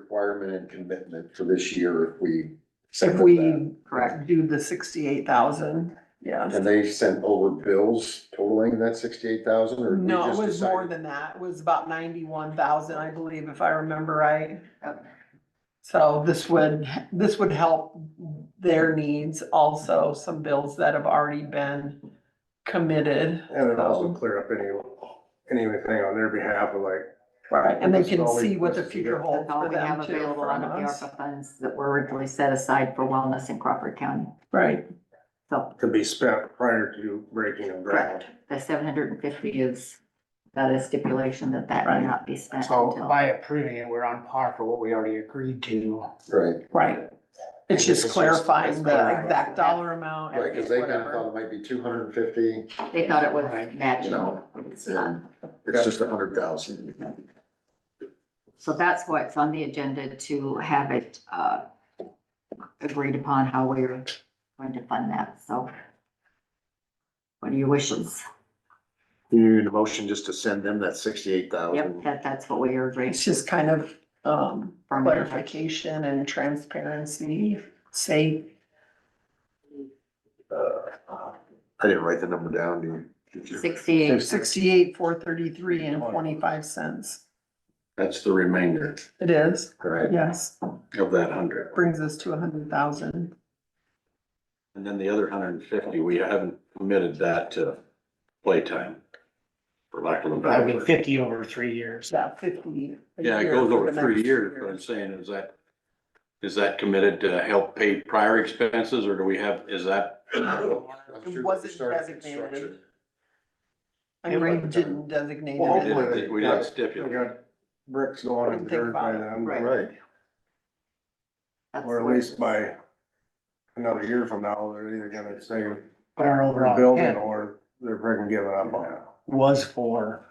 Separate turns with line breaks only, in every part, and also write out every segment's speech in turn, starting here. requirement and commitment for this year if we.
If
accepted that.
we correct, do the sixty-eight thousand, yeah.
And they sent over bills totaling that sixty-eight thousand or? we
No, it
just
was more
decided-
than that. It was about ninety-one thousand, I believe, if I remember right. So this would, this would help their needs also, some bills that have already been committed.
And it also
so-
clear up any, anything on their behalf of like,
Right, and they
This is
can
all we-
see what the
this is it.
future holds
That's all
for
we have
them too,
available
from
out of the
us.
ARPA funds that were originally set aside for wellness in Crawford County.
Right,
So,
could be spent prior to breaking of ground.
correct. The seven hundred and fifty is, got a stipulation that that
Right.
may not be spent
So
until.
by approving it, we're on par for what we already agreed to.
Right,
right. It's
It's
just
just-
clarifying
it's
the
clarifying.
exact dollar amount.
right, cause they kind of
whatever.
thought it might be two hundred and fifty,
They thought it was
Right.
you
natural.
know,
uh,
and it's just a hundred thousand.
So that's why it's on the agenda to have it, uh, agreed upon how we're going to fund that, so. What are your wishes?
You need a motion just to send them that sixty-eight
Yep, that, that's what we are agreeing.
It's just kind of, um,
from there.
clarification and transparency, say,
Uh, I didn't write the number down, do you? Did you?
Sixty-eight,
sixty-eight, four thirty-three and twenty-five cents.
That's the remainder,
It is,
right,
yes,
of that hundred.
brings us to a hundred thousand.
And then the other hundred and fifty, we haven't committed that to playtime, for lack of
That
a
would
better
be
word.
fifty over three years.
Yeah, fifty. a
Yeah, it
year
goes
for
over
the
three
next
years,
year.
but I'm saying is that, is that committed to help pay prior expenses, or do we have, is that?
It wasn't designated. I mean, didn't designate
Well,
We
it.
hopefully-
didn't we didn't stipulate.
We got bricks going in the dirt by then,
Right.
Right,
that's
or
what
at
it
least
is.
by another year from now, they're either gonna say they're
But our overall
building
hit
or they're freaking giving up on it.
was for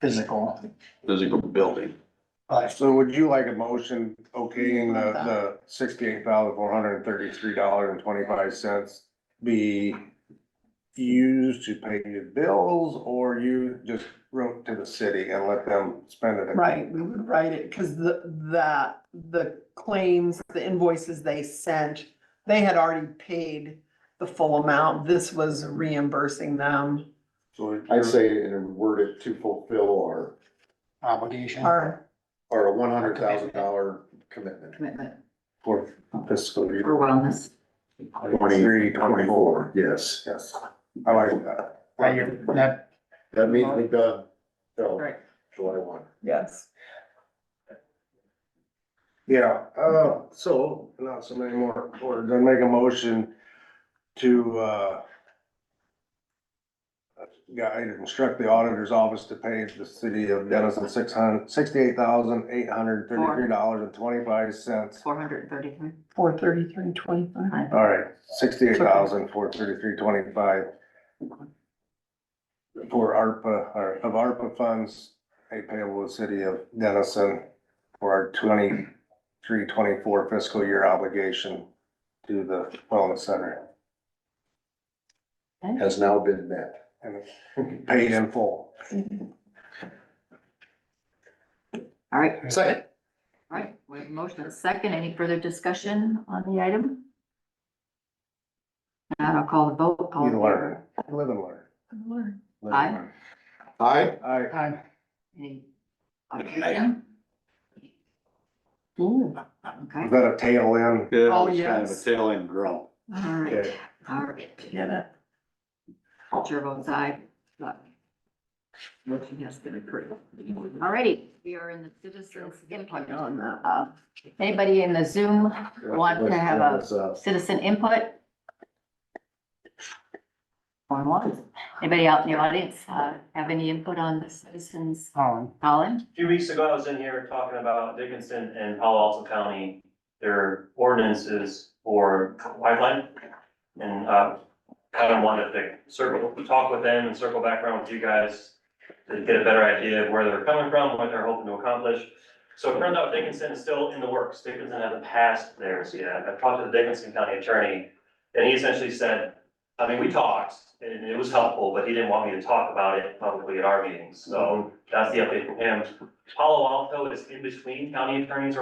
physical.
physical building.
But
So would you like a motion okaying the,
Like that.
the sixty-eight thousand four hundred and thirty-three dollars and twenty-five cents be used to pay your bills, or you just wrote to the city and let them spend it?
Right, we would write it, because the, that, the claims, the invoices they sent, they had already paid the full amount. This was reimbursing them
So if
I'd
you're-
say and word it to fulfill our,
obligation.
our
our one hundred thousand dollar commitment.
Commitment
For fiscal year
for wellness.
twenty-three, twenty-four,
Yes,
yes, I like that.
Right, you're- that,
that means we've done, so,
Right.
July one.
Yes,
Yeah, uh, so, not so many more words, I make a motion to, uh, guide, instruct the auditor's office to pay the city of Dennison six hundred, sixty-eight thousand, eight hundred thirty-three dollars and twenty-five cents.
Four hundred and thirty-three.
four thirty-three twenty-five.
All right, sixty-eight thousand, four thirty-three, twenty-five. For ARPA, or of ARPA funds, a payable to city of Dennison for our twenty-three, twenty-four fiscal year obligation to the wellness center
has now been met.
and paid in full.
All right,
Second.
all right, we have a motion and a second. Any further discussion on the item? Now I'll call the vote. All in
You learn,
favor?
live and learn. Live and
Aye.
learn.
Aye.
Aye.
time,
Any objection?
Is
Okay,
that a tail end?
Yeah,
Oh,
it's kind of a
yes.
tail end grunt.
all right,
Okay.
all right.
Get it?
Chair votes aye. but Motion has been approved. All righty, we are in the citizens input.
On that.
Uh, Anybody in the Zoom want to have a
That's, uh,
citizen input? Going once. Anybody out in the audience uh, have any input on the citizens
Colin.
Colin?
A few weeks ago, I was in here talking about Dickinson and Palo Alto County, their ordinances for pipeline. And, uh, kind of wanted to circle, talk with them and circle back around with you guys to get a better idea of where they're coming from, what they're hoping to accomplish. So it turns out Dickinson is still in the works. Dickinson hasn't passed theirs yet. I talked to the Dickinson County Attorney, and he essentially said, I mean, we talked, and it was helpful, but he didn't want me to talk about it publicly at our meetings, so that's the update from him. Palo Alto is in between county attorneys